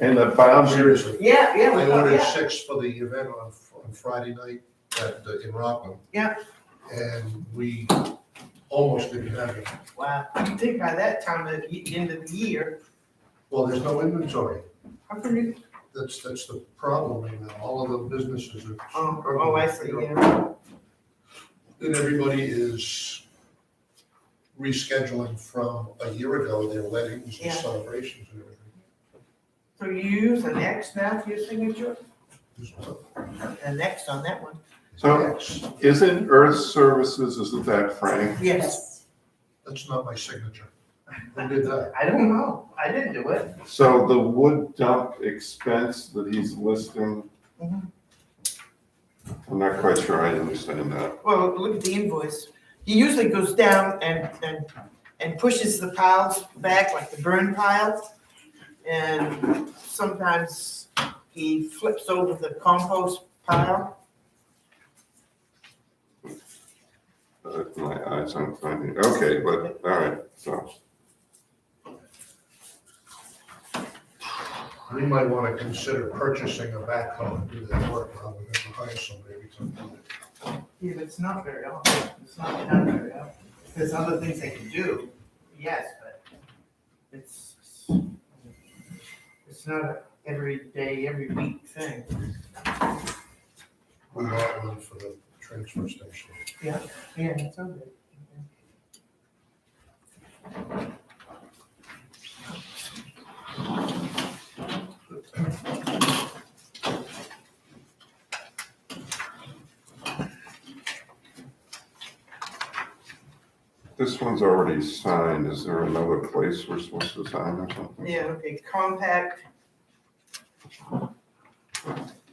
And the boundaries, Yeah, yeah, we I thought, ordered yeah, six for the event on, on Friday night at, the- in Rockland. Yeah. And we almost didn't have it. wow, you think by that time, at the end of the year, Well, there's no inventory. how can you, That's, that's the problem right now. All of the businesses are. oh, oh, I see, struggling, you know. yeah. And everybody is rescheduling from a year ago, their weddings Yeah. and celebrations and everything. So you use an X now for your signature? There's no- An X on that one? there's no So- X. isn't Earth Services, isn't that Frank? Yes, That's not my signature. Who did that? I don't know, I didn't do it. So the wood dump expense that he's listing, Mhm. I'm not quite sure I understand that. Well, look at the invoice. He usually goes down and, and, and pushes the piles back, like the burn piles. And sometimes he flips over the compost pile. Uh, My eyes aren't finding, okay, but, all right, so. We might want to consider purchasing a backhoe and do that work rather than hire somebody every time. we do it. Yeah, but it's not very often, it's not done very often. There's other things they can do, yes, but it's, it's not a every day, every week thing. We bought one for the transfer station. Yeah, it's okay. This one's already signed. Is there another place we're supposed to sign or something? Yeah, okay, compact.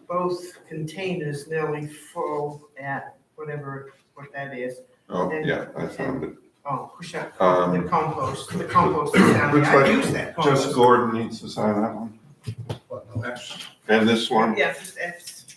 Both containers nearly full at whatever, what that is. Oh, yeah, I found it. Oh, push up the Um, compost, the compost is down Looks there. I like use that just compost. Gordon needs to sign that one. But no, that's, And this one, Yeah, just F's.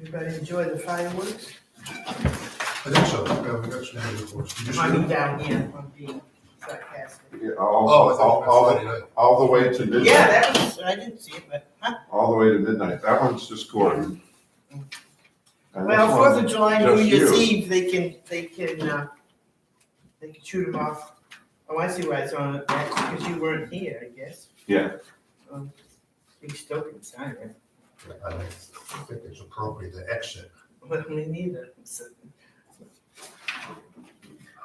Everybody enjoy the fireworks? I think so. Yeah, we got some good reports. You just- I mean, down here, I'm being sarcastic. yeah, Oh, all, I all, thought you meant all, Friday night. all the way to Yeah, midnight, that was, I didn't see it, but, huh? all the way to midnight. That one's just Gordon. And this well, Fourth one, of July, New just Year's you. Eve, they can, they can, uh, they can shoot them off. Oh, I see why it's on, that's because you weren't here, I guess. Yeah. Um, You still can sign it, I don't think it's appropriate to exit. but me neither. so.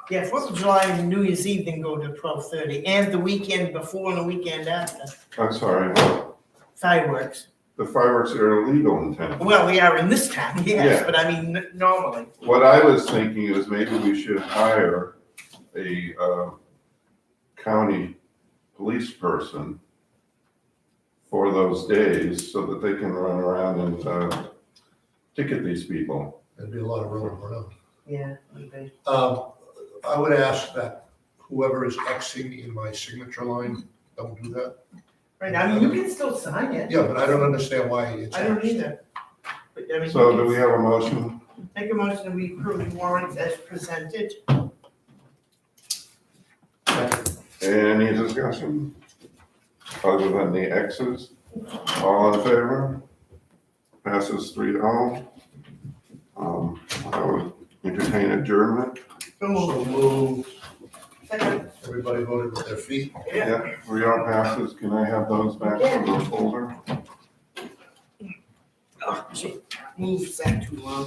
Yeah, Fourth of July and New Year's Eve then go to twelve thirty, and the weekend before and the weekend after, I'm sorry, fireworks. the fireworks are illegal in town. Well, we are in this town, yes, Yeah. but I mean, n- normally. What I was thinking is maybe we should hire a, uh, county police person for those days so that they can run around and, uh, ticket these people. There'd be a lot of rolling around. Yeah, would be. Um, I would ask that whoever is Xing in my signature line, don't do that. Right, I mean, you can still sign it. Yeah, but I don't understand why it's. I don't Xed. either. But I mean, So do you we have a motion? can make a motion that we approve the warrants as presented. Any discussion? Other than the X's? All in favor? Passes three to all. Um, I would entertain adjournment. So moved. So moved, Second. everybody voted with their feet. Yeah. Yeah, three all passes. Can I have those back in the folder? Oh, gee, move that too long.